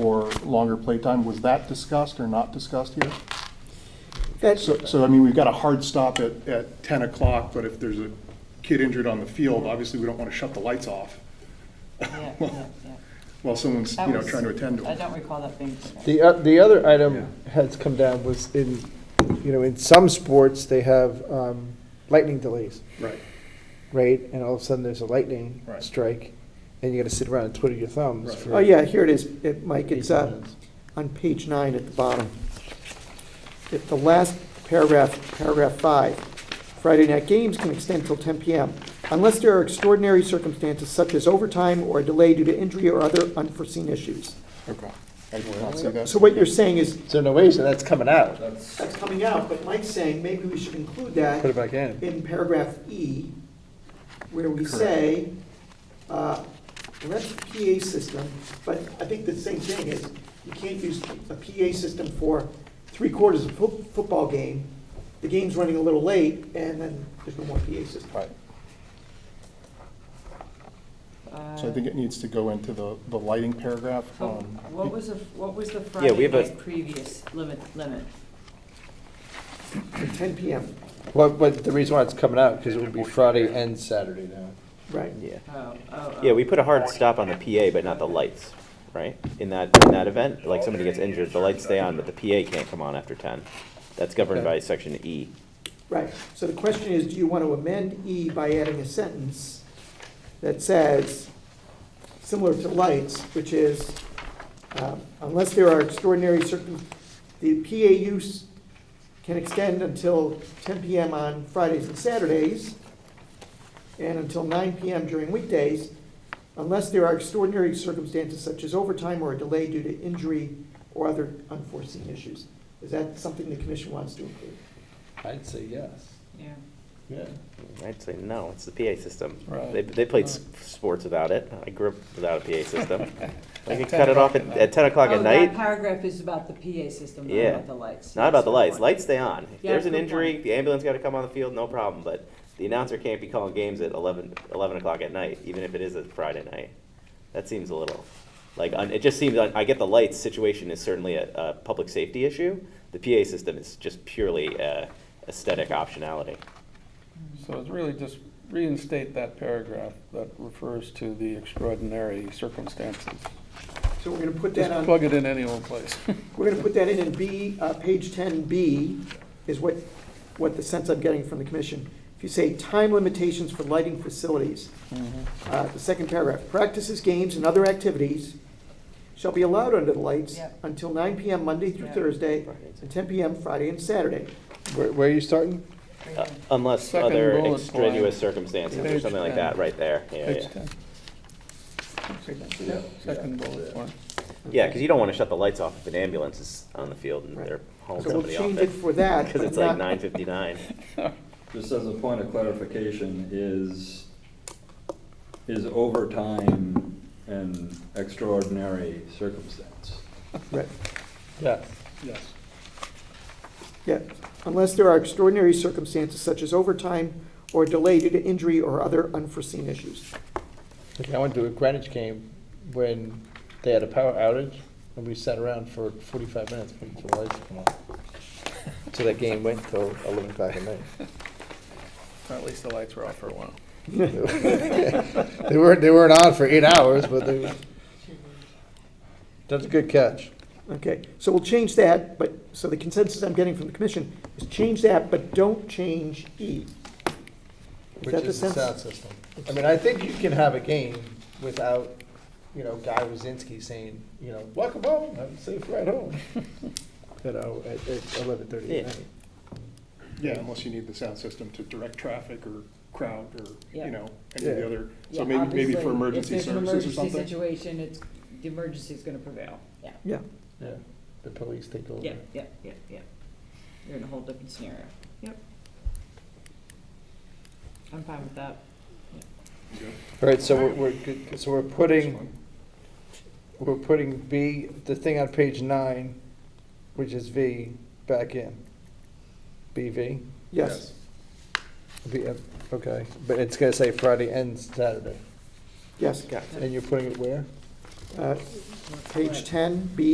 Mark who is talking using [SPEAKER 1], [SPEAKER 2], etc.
[SPEAKER 1] or longer playtime, was that discussed or not discussed here?
[SPEAKER 2] That,
[SPEAKER 1] So, so I mean, we've got a hard stop at, at ten o'clock, but if there's a kid injured on the field, obviously we don't want to shut the lights off
[SPEAKER 3] Yeah, yeah, yeah.
[SPEAKER 1] while someone's, you
[SPEAKER 3] That
[SPEAKER 1] know,
[SPEAKER 3] was-
[SPEAKER 1] trying to attend to
[SPEAKER 3] I
[SPEAKER 1] them.
[SPEAKER 3] don't recall that being. put in.
[SPEAKER 2] the, o- the other item has come down was in, you know, in some sports, they have um, lightning delays,
[SPEAKER 1] Right,
[SPEAKER 2] right? And all of a sudden, there's a lightning
[SPEAKER 1] Right.
[SPEAKER 2] strike, and you gotta sit around and twiddle your thumbs
[SPEAKER 1] Right.
[SPEAKER 2] for.
[SPEAKER 4] Oh, yeah, here it is, It- Mike, it's uh, on page nine at the bottom. At the last paragraph, paragraph five, Friday night games can extend till 10 PM unless there are extraordinary circumstances such as overtime or a delay due to injury or other unforeseen issues.
[SPEAKER 1] okay. I did not see that.
[SPEAKER 4] So what you're saying is,
[SPEAKER 2] So no way, so that's coming out.
[SPEAKER 4] that's coming out, but Mike's saying maybe we should include that
[SPEAKER 2] Put it back in.
[SPEAKER 4] in paragraph E, where we say, uh, well, that's a PA system, but I think the same thing is, you can't use a PA system for three quarters of a fo- football game, the game's running a little late, and then there's no more PA system.
[SPEAKER 1] Right, so I
[SPEAKER 3] Uh,
[SPEAKER 1] think it needs to go into the, the lighting paragraph.
[SPEAKER 3] oh,
[SPEAKER 1] um,
[SPEAKER 3] What was the, what was the
[SPEAKER 5] Yeah, we
[SPEAKER 3] Friday
[SPEAKER 5] have a-
[SPEAKER 3] night previous limit, limit?
[SPEAKER 4] At Ten PM,
[SPEAKER 2] What, what, the reason why it's coming out, because it would be Friday and Saturday now.
[SPEAKER 4] right.
[SPEAKER 5] Yeah,
[SPEAKER 3] Oh, oh, oh.
[SPEAKER 5] yeah, we put a hard stop on the PA, but not the lights, right? In that, in that event, like somebody gets injured, the lights stay on, but the PA can't come on after ten. That's governed by section E.
[SPEAKER 4] Right, so the question is, do you want to amend E by adding a sentence that says, similar to lights, which is, um, unless there are extraordinary circum, the PA use can extend until ten PM on Fridays and Saturdays, and until nine PM during weekdays, unless there are extraordinary circumstances such as overtime or a delay due to injury or other unforeseen issues. Is that something the commission wants to include?
[SPEAKER 2] I'd say yes,
[SPEAKER 3] Yeah.
[SPEAKER 2] yeah.
[SPEAKER 5] I'd say no, it's the PA system.
[SPEAKER 2] Right.
[SPEAKER 5] They, they played s- sports without it. I grew up without a PA system. I could cut it off at, at ten o'clock
[SPEAKER 3] Oh, that
[SPEAKER 5] at night.
[SPEAKER 3] paragraph is about the PA system, not
[SPEAKER 5] Yeah.
[SPEAKER 3] about the lights.
[SPEAKER 5] Not about the
[SPEAKER 3] Yes,
[SPEAKER 5] lights.
[SPEAKER 3] good
[SPEAKER 5] Lights stay on. If
[SPEAKER 3] Yeah,
[SPEAKER 5] there's an
[SPEAKER 3] good
[SPEAKER 5] injury,
[SPEAKER 3] point.
[SPEAKER 5] the ambulance got to come on the field, no problem. But the announcer can't be calling games at 11, 11 o'clock at night, even if it is a Friday night. That seems a little like un, it just seems. un- I get the lights situation is certainly a, a public safety issue. The PA system is just purely uh, aesthetic optionality.
[SPEAKER 6] So it's really just reinstate that paragraph that refers to the extraordinary circumstances.
[SPEAKER 4] So we're gonna put that
[SPEAKER 6] Just
[SPEAKER 4] on,
[SPEAKER 6] plug it in any old place.
[SPEAKER 4] we're gonna put that in, in B, uh, page ten B is what, what the sense I'm getting from the commission. If you say time limitations for lighting facilities,
[SPEAKER 6] Mm-hmm.
[SPEAKER 4] uh, the second paragraph, practices, games, and other activities shall be allowed under the lights
[SPEAKER 3] Yep.
[SPEAKER 4] until nine PM Monday through
[SPEAKER 3] Yep.
[SPEAKER 4] Thursday,
[SPEAKER 5] Friday and
[SPEAKER 4] and ten PM Friday and Saturday.
[SPEAKER 2] Where, where are you starting?
[SPEAKER 3] point.
[SPEAKER 5] Uh, unless
[SPEAKER 6] Second
[SPEAKER 5] other
[SPEAKER 6] bullet point.
[SPEAKER 5] extraneous circumstances or
[SPEAKER 6] Page
[SPEAKER 5] something like
[SPEAKER 6] 10.
[SPEAKER 5] that, right there. Yeah, yeah.
[SPEAKER 6] Page 10, second bullet point.
[SPEAKER 5] Yeah, because you don't want to shut the lights off if an ambulance is on the field and
[SPEAKER 4] Right.
[SPEAKER 5] they're hauling
[SPEAKER 4] So we'll
[SPEAKER 5] somebody off
[SPEAKER 4] change
[SPEAKER 5] it.
[SPEAKER 4] it for that.
[SPEAKER 5] Because
[SPEAKER 4] but
[SPEAKER 5] it's like
[SPEAKER 4] not-
[SPEAKER 5] nine fifty-nine.
[SPEAKER 7] Just as a point of clarification, is, is overtime an extraordinary circumstance?
[SPEAKER 4] Right.
[SPEAKER 2] Yes.
[SPEAKER 6] Yes.
[SPEAKER 4] Yeah, unless there are extraordinary circumstances such as overtime or delay due to injury or other unforeseen issues.
[SPEAKER 2] Okay, I went to a Greenwich game when they had a power outage, and we sat around for forty-five minutes waiting for the lights to come on. So that game went till eleven o'clock at night.
[SPEAKER 6] Or At least the lights were off for a while.
[SPEAKER 2] They weren't, they weren't on for eight hours, but they. That's a good catch.
[SPEAKER 4] Okay, so we'll change that, but, so the consensus I'm getting from the commission is change that, but don't change E.
[SPEAKER 2] Which
[SPEAKER 4] that the
[SPEAKER 2] is the
[SPEAKER 4] sense?
[SPEAKER 2] sound system. I mean, I think you can have a game without, you know, Guy Wazinski saying, you know, welcome home, have a safe ride home. You know, at, at eleven thirty at
[SPEAKER 5] Yeah.
[SPEAKER 2] night.
[SPEAKER 1] Yeah, unless you need the sound system to direct traffic or crowd or,
[SPEAKER 3] Yeah.
[SPEAKER 1] you know, any of
[SPEAKER 2] Yeah.
[SPEAKER 1] the other, so
[SPEAKER 3] Yeah,
[SPEAKER 1] maybe, maybe
[SPEAKER 3] obviously,
[SPEAKER 1] for emergency
[SPEAKER 3] if
[SPEAKER 1] services
[SPEAKER 3] there's an
[SPEAKER 1] or
[SPEAKER 3] emergency
[SPEAKER 1] something.
[SPEAKER 3] Situation, it's, the emergency is gonna prevail, yeah,
[SPEAKER 4] Yeah,
[SPEAKER 2] Yeah, the police take over.
[SPEAKER 3] yeah, yeah, yeah, yeah. You're in a whole different scenario, yep. I'm fine with that.
[SPEAKER 2] All right, so we're, we're, good- so we're putting, we're putting B, the thing on page nine, which is V, back in. BV,
[SPEAKER 4] yes,
[SPEAKER 2] V, uh, okay, but it's gonna say Friday and Saturday.
[SPEAKER 4] yes.
[SPEAKER 5] Got
[SPEAKER 2] And you're putting it where?
[SPEAKER 4] uh, page 10, B.